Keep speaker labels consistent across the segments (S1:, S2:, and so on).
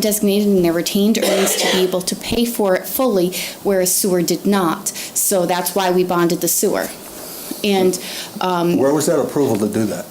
S1: undesignated and their retained earnings to be able to pay for it fully, whereas sewer did not. So that's why we bonded the sewer. And um,
S2: Where was that approval to do that?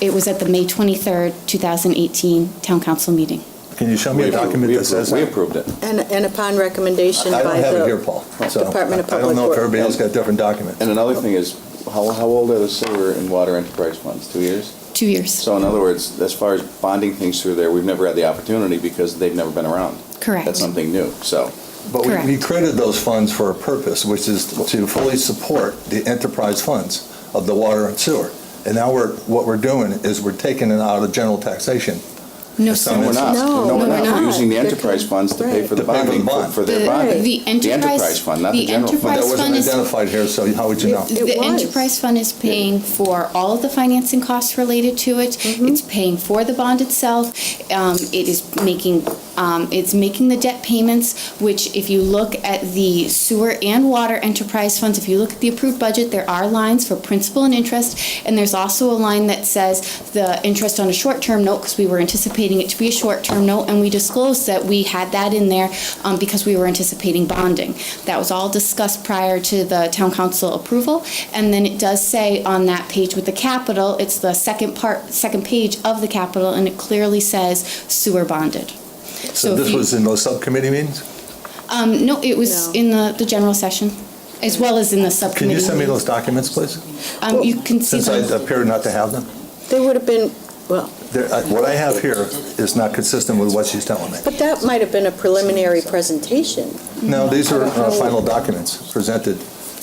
S1: it was at the May 23rd, 2018 Town Council meeting.
S2: Can you show me a document that says
S3: We
S2: that?
S3: approved it.
S4: And, and upon recommendation
S2: I
S4: by the.
S2: don't have it here, Paul, so
S4: Department of
S2: I don't
S4: Public
S2: know if
S4: Works.
S2: everybody else got a different document.
S3: And another thing is, how, how old are the sewer and water enterprise funds? Two years?
S1: Two years.
S3: So in other words, as far as bonding things through there, we've never had the opportunity because they've never been around.
S1: Correct.
S3: That's something new, so.
S2: But we- we
S1: Correct.
S2: created those funds for a purpose, which is to fully support the enterprise funds of the water and sewer. And now we're, what we're doing is we're taking it out of general taxation.
S1: No
S2: So
S3: No,
S1: sewer.
S3: we're not.
S4: No,
S3: we're
S1: no, we're
S3: We're
S1: not.
S3: using the
S4: They're
S3: enterprise
S4: con-
S3: funds to pay
S4: right.
S3: for the
S2: To pay for the
S3: bonding, for
S2: bond.
S3: for their
S1: The-
S3: bonding.
S1: the enterprise-
S3: fund, not the
S1: the
S3: general fund.
S2: That
S1: Enterprise
S2: wasn't
S1: fund is-
S2: identified here, so how would you know?
S4: It
S1: The
S4: was.
S1: enterprise fund is paying for all of the financing costs related to it.
S4: Mm-hmm.
S1: It's paying for the bond itself. Um, It is making, um, it's making the debt payments, which if you look at the sewer and water enterprise funds, if you look at the approved budget, there are lines for principal and interest. And there's also a line that says the interest on a short-term note, because we were anticipating it to be a short-term note. And we disclosed that we had that in there um, because we were anticipating bonding. That was all discussed prior to the town council approval. And then it does say on that page with the capital, it's the second part, second page of the capital, and it clearly says sewer bonded.
S2: So
S1: if
S2: this
S1: you-
S2: was in those subcommittee meetings?
S1: Um, no, it was
S4: No.
S1: in the, the general session, as well as in the
S2: Can
S1: subcommittee.
S2: you send me
S1: meeting.
S2: those documents, please?
S1: Um, you can see
S2: Since I
S1: them.
S2: appear not to have them.
S4: They would have been, well,
S2: There- I- What I have here is not consistent with what she's telling me.
S4: but that might have been a preliminary presentation.
S2: No, these are uh, final documents presented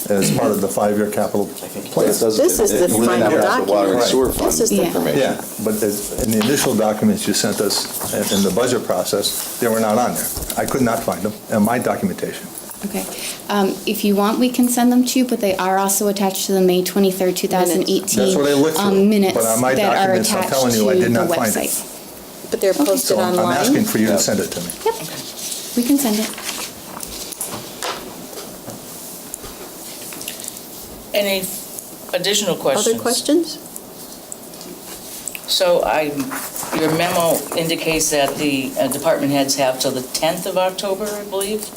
S2: as part of the five-year capital
S3: But
S2: plan.
S3: it doesn't-
S4: This is
S3: it-
S4: the
S3: it really
S4: final
S3: not about the Water and
S2: document.
S3: sewer
S4: This
S3: fund
S4: is the-
S3: information.
S2: Yeah, but as- in the initial documents you sent us in- in the budget process, they were not on there. I could not find them in my documentation.
S1: Okay. Um, if you want, we can send them to you, but they are also attached to the May twenty-third, two thousand eighteen. um,
S2: That's what I looked for.
S1: Minutes
S2: But on my
S1: that are
S2: documents, I'm
S1: attached
S2: telling you, I
S1: to the
S2: did not find it.
S1: website.
S4: But they're posted
S2: So I'm I'm asking
S4: online.
S2: for you to send it to me.
S1: Yep, we can send it.
S5: Any additional questions?
S4: Other questions?
S5: So I, your memo indicates that the uh, department heads have till the 10th of October, I believe?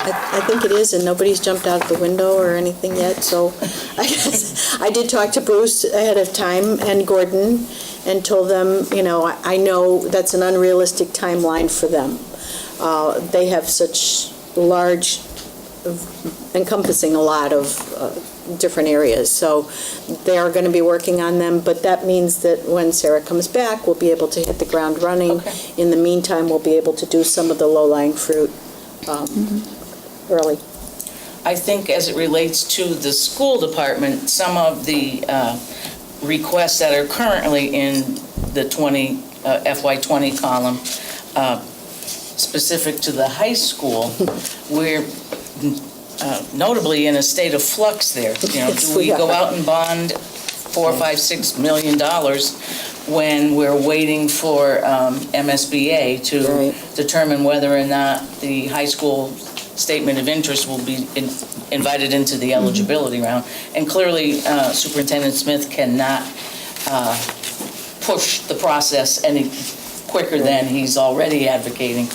S4: I, I think it is, and nobody's jumped out of the window or anything yet, so I guess, I did talk to Bruce ahead of time and Gordon and told them, you know, I, I know that's an unrealistic timeline for them. Uh, they have such large, encompassing a lot of, uh, different areas, so they are gonna be working on them, but that means that when Sarah comes back, we'll be able to hit the ground running.
S5: Okay.
S4: In the meantime, we'll be able to do some of the low-lying fruit, um, early.
S5: I think as it relates to the school department, some of the uh, requests that are currently in the uh, 20, FY20 column, uh, specific to the high school, we're uh, notably in a state of flux there. You know,
S4: Yes,
S5: do we
S4: we
S5: go
S4: are.
S5: out and bond four, five, six million dollars when we're waiting for um, MSBA to
S4: Right.
S5: determine whether or not the high school statement of interest will be in- invited into the eligibility round. And clearly uh, Superintendent Smith cannot uh, push the process any quicker than he's already advocating.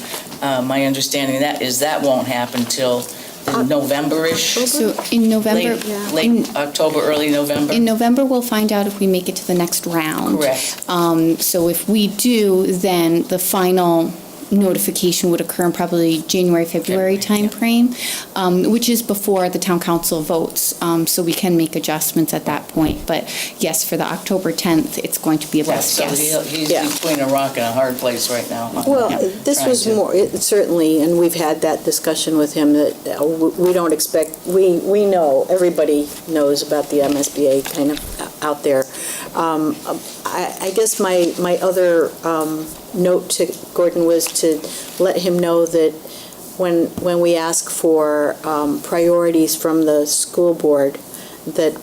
S5: Uh, My understanding of that is that won't happen till the November-ish,
S1: So in November,
S5: late
S4: Yeah.
S5: late October, early November?
S1: in November, we'll find out if we make it to the next round.
S5: Correct.
S1: Um, so if we do, then the final notification would occur in probably January, February timeframe, um, which is before the town council votes. Um, so we can make adjustments at that point. But yes, for the October tenth, it's going to be a
S5: Right,
S1: best
S5: so
S1: guess.
S5: he'll- he's
S4: Yeah.
S5: between a rock and a hard place right now.
S4: Well, uh,
S5: Yeah.
S4: this
S5: Trying
S4: was
S5: to-
S4: more, it- certainly, and we've had that discussion with him, that uh, w- we don't expect, we, we know, everybody knows about the MSBA kind of uh, out there. Um, I, I guess my, my other um, note to Gordon was to let him know that when, when we ask for um, priorities from the school board, that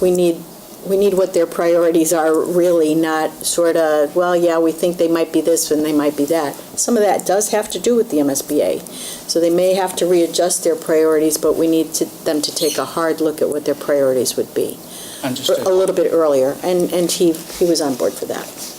S4: we need, we need what their priorities are really, not sort of, well, yeah, we think they might be this and they might be that. Some of that does have to do with the MSBA. So they may have to readjust their priorities, but we need to, them to take a hard look at what their priorities would be
S5: Understood.
S4: a little bit earlier. And, and he, he was on board for that.